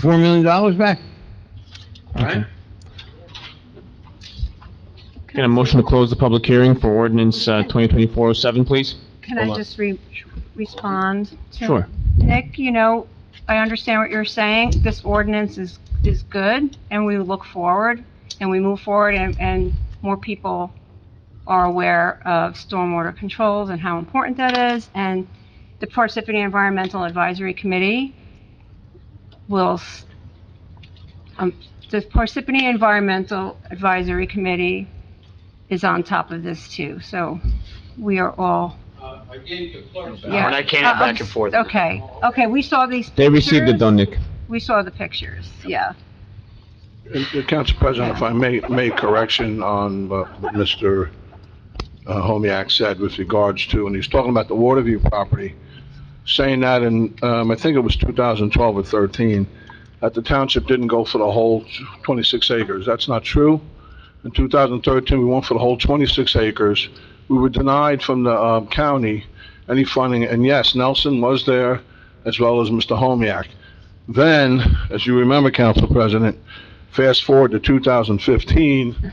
four million dollars back. All right. Can a motion to close the public hearing for ordinance uh, 2024-07, please? Can I Hold on. just re- respond? to- Sure. Nick, you know, I understand what you're saying. This ordinance is, is good, and we look forward, and we move forward, and, and more people are aware of stormwater controls and how important that is, and the Parsippany Environmental Advisory Committee will, s- um, the Parsippany Environmental Advisory Committee is on top of this too, so we are all Uh, I gave the clerk that. yeah. We're not canning Uh, back and forth. Okay, okay, we saw these pictures. They received it though, Nick. We saw the pictures, yeah. And, uh, Council President, if I may, make correction on what Mr. uh, Homiak said with regards to, and he's talking about the Waterview property, saying that in, um, I think it was 2012 or 13, that the township didn't go for the whole 26 acres. That's not true. In 2013, we went for the whole 26 acres. We were denied from the um, county any funding, and yes, Nelson was there, as well as Mr. Homiak. Then, as you remember, Council President, fast forward to 2015,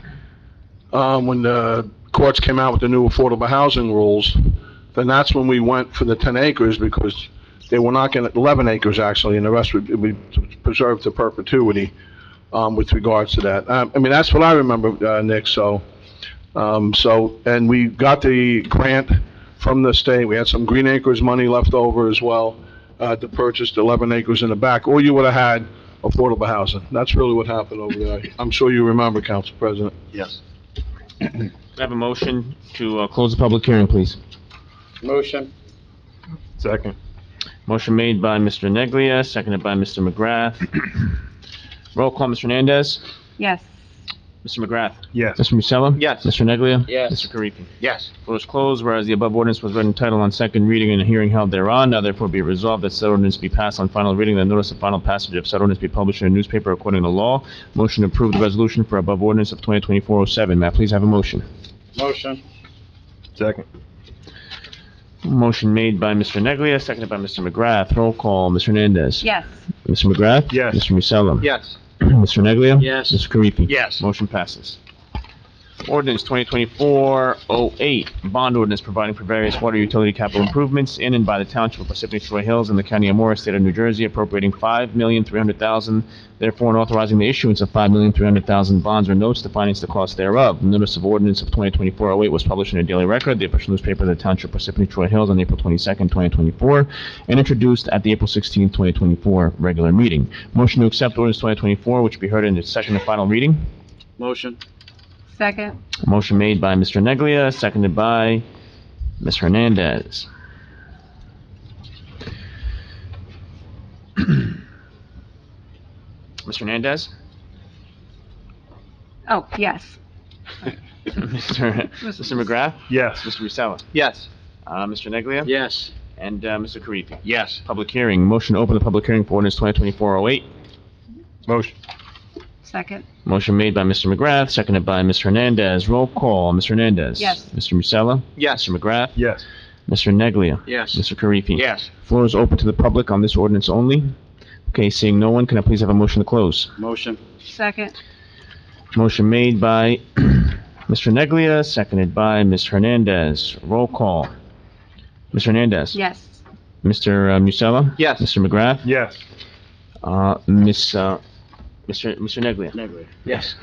um, when the courts came out with the new affordable housing rules, then that's when we went for the 10 acres because they were not going to, 11 acres actually, and the rest would be preserved to perpetuity um, with regards to that. Um, I mean, that's what I remember, uh, Nick, so, um, so, and we got the grant from the state. We had some green acres money left over as well uh, to purchase the 11 acres in the back, or you would have had affordable housing. That's really what happened over there. I'm sure you remember, Council President. Yes. Can I have a motion to uh, close the public hearing, please? Motion. Second. Motion made by Mr. Neglia, seconded by Mr. McGrath. Roll call, Mr. Hernandez. Yes, Mr. McGrath. Yes. Mr. Musella. Yes. Mr. Neglia. Yes. Mr. Karifi. Yes. Floor is closed, whereas the above ordinance was read in title on second reading and a hearing held thereon, now therefore be resolved that said ordinance be passed on final reading, that notice of final passage of said ordinance be published in a newspaper according to law. Motion to approve the resolution for above ordinance of 2024-07. May I please have a motion? Motion. Second. Motion made by Mr. Neglia, seconded by Mr. McGrath. Roll call, Mr. Hernandez. yes. Mr. McGrath? Yes. Mr. Musella? Yes. Mr. Neglia? Yes. Mr. Karifi? Yes. Motion passes. Ordinance 2024-08, bond ordinance providing for various water utility capital improvements in and by the Township of Parsippany Troy Hills and the County of Morris, State of New Jersey, appropriating $5,300,000, therefore and authorizing the issuance of $5,300,000 bonds or notes to finance the cost thereof. Notice of ordinance of 2024-08 was published in a daily record, the official newspaper of the Township of Parsippany Troy Hills on April 22nd, 2024, and introduced at the April 16th, 2024 regular meeting. Motion to accept ordinance 2024, which be heard in its second and final reading. Motion. Second, Motion made by Mr. Neglia, seconded by Ms. Hernandez. Mr. Hernandez? oh, yes. Mr. Mr. McGrath? Yes. Mr. Musella? Yes. Uh, Mr. Neglia? Yes. And, uh, Mr. Karifi? Yes. Public hearing, motion to open the public hearing for ordinance 2024-08. Motion. Second, Motion made by Mr. McGrath, seconded by Ms. Hernandez. Roll call, Mr. Hernandez? Yes. Mr. Musella? Yes. Mr. McGrath? Yes. Mr. Neglia? Yes. Mr. Karifi? Yes. Floor is open to the public on this ordinance only. Okay, seeing no one, can I please have a motion to close? Motion. second, Motion made by Mr. Neglia, seconded by Ms. Hernandez. Roll call. Ms. Hernandez? yes. Mr. uh, Musella? Yes. Mr. McGrath? Yes. Uh, Ms., uh, Mr. Mr. Neglia? Neglia. Yes.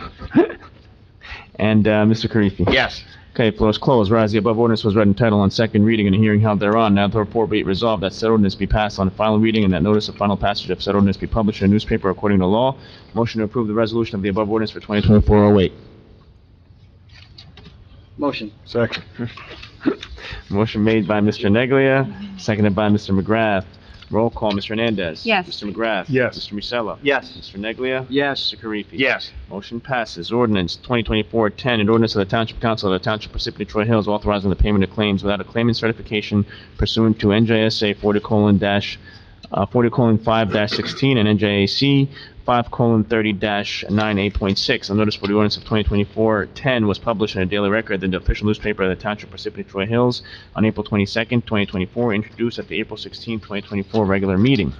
And, uh, Mr. Karifi? Yes. Okay, floor is closed. Whereas the above ordinance was read in title on second reading and a hearing held thereon, now therefore be it resolved that said ordinance be passed on final reading and that notice of final passage of said ordinance be published in a newspaper according to law. Motion to approve the resolution of the above ordinance for 2024-08. Motion. Second. Motion made by Mr. Neglia, seconded by Mr. McGrath. Roll call, Mr. Hernandez. Yes. Mr. McGrath. Yes. Mr. Musella. Yes. Mr. Neglia. Yes. Mr. Karifi. Yes. Motion passes. Ordinance 2024-10, an ordinance of the Township Council of the Township of Parsippany Troy Hills authorizing the payment of claims without a claimant certification pursuant to NJSA uh, 40:5-16 and NJAC 5:30-98.6. The notice for the ordinance of 2024-10 was published in a daily record in the official newspaper of the Township of Parsippany Troy Hills on April 22nd, 2024, introduced at the April 16th, 2024 regular meeting.